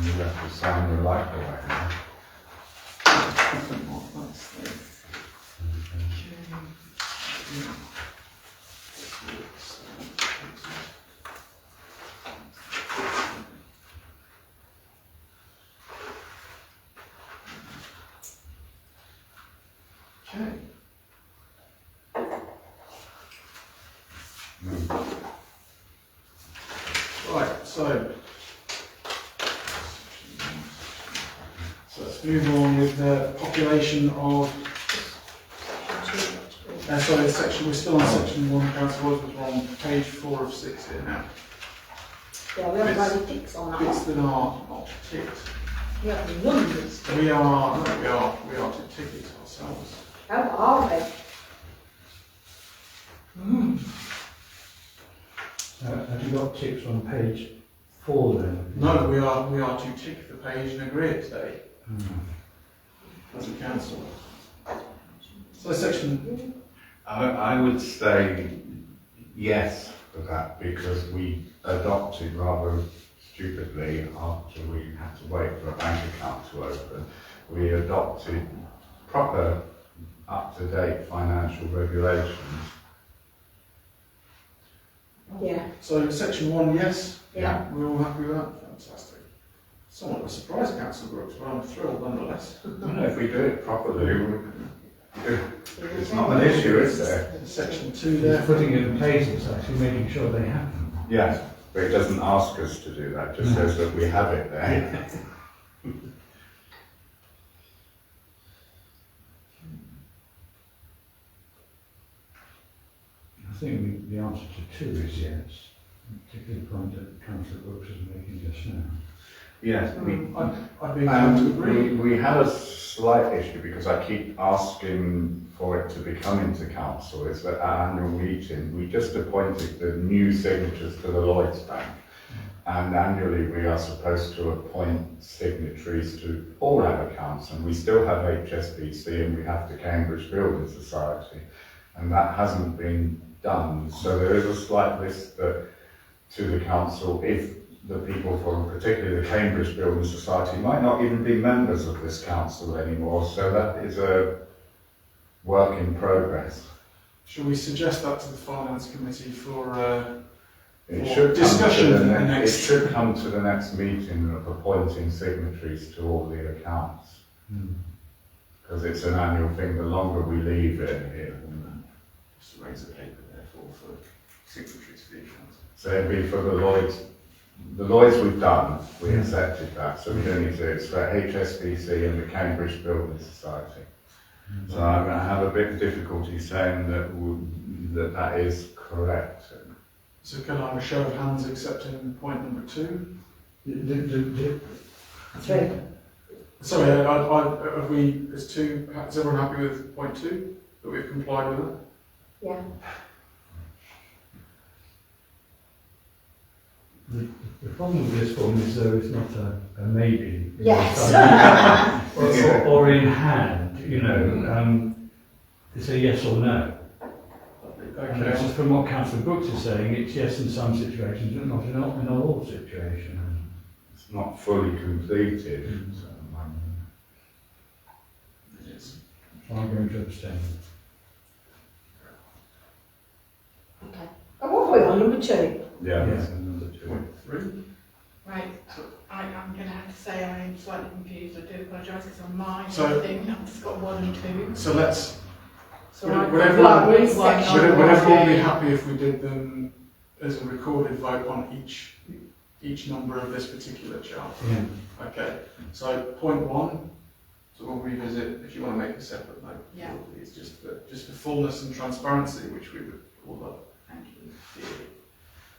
You have to sign your life away. huh? Okay. Hmm. Right, so. So let's move on with the population of, uh, sorry, section, we're still on section one, council was on page four of six here now. Yeah, we haven't got any ticks on Bits that. that are not ticked, We have any numbers. we are, no, we are, we are to tick it ourselves. How are they? Uh, Have you got ticks on page four then? No, we are, we are to tick the page and agree it today. As a council. Hmm. So section, I, I would say yes for that because we adopted rather stupidly after we had to wait for a bank account to open. We adopted proper, up-to-date financial regulations. Yeah, so section one, yes, yeah. we're all happy with that, fantastic. Somewhat of a surprise, council Brooks, but I'm thrilled nonetheless. And if we do it properly, we- it's not an issue, is there? Section two He's there. putting it in place, it's actually making sure they happen. Yes, but it doesn't ask us to do that, just says that we have it there. I think the- the answer to two is yes, particularly the point that councillor Brooks is making just now. Yes, we I'd, I'd be inclined to Um, agree. we, we had a slight issue because I keep asking for it to be coming to council, is that our annual meeting, we just appointed the new signatures to the Lloyds Bank. And annually, we are supposed to appoint signatories to all our accounts, and we still have HSBC and we have the Cambridge Building Society. And that hasn't been done, so there is a slight risk that to the council if the people from particularly the Cambridge Building Society might not even be members of this council anymore. So that is a work in progress. Shall we suggest that to the finance committee for, uh, It Well, should discussion come to the at the next, next- it should come to the next meeting of appointing signatories to all the accounts. Hmm. Because it's an annual thing, the longer we leave it here, just raise the paper therefore for signatories for the accounts. So it'd be for the Lloyds, the Lloyds we've done, we Mm. accepted that, so we don't need to, it's for HSBC and the Cambridge Building Society. Mm. So I'm gonna have a bit of difficulty saying that, w- that that is correct. So can I have a show of hands accepting point number two? The- the- the- the- Three. Sorry, I, I, I- have we, is two, is everyone happy with point two, that we've complied with it? Yeah. The problem with this one is though it's not a a maybe. Yes. Or- Or or in hand, you know, um, it's a yes or no. And it's Okay, just from what councillor Brooks is saying, it's yes in some situations, but not in all, in all situations. It's not fully Mm. completed, so um, I'm- So I'm going to abstain. Okay. And what are we on, number two? yeah, that's Yeah. another two. point three, Right, I, I'm going to have to say I am slightly confused, I do apologise, because on my So- thing, I've just got one and two. so let's, So Would- I've would got everyone- one, would one, would one, would everyone be two. happy if we did them as a recorded vote on each, each number of this particular chart? Yeah. Okay, so point one, so we'll revisit, if you want to make a separate note. Yeah. It's just for, just for fullness and transparency, which we would all love. Thank you.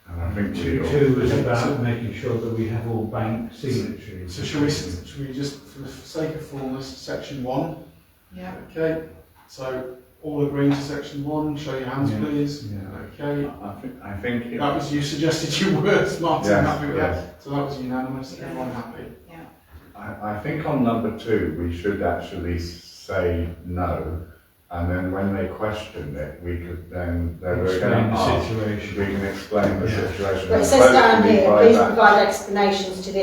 And I think we Two, all- two was about making sure that we have all bank signatories. So shall we, shall we just, for the sake of fullness, section one? Yeah, Okay, so all agreeing to section one, show your hands Yeah. please. Yeah. Okay, I think, I think. it- that was, you suggested you were, Martin, Yes, happy with yes. that? So that was unanimous, everyone happy? yeah. I, I think on number two, we should actually s- say no, and then when they question it, we could then, they were Explain going to the ask, we situation. can explain the Yeah. situation. Well, it It's says supposed to down be here, by please that- provide explanations to the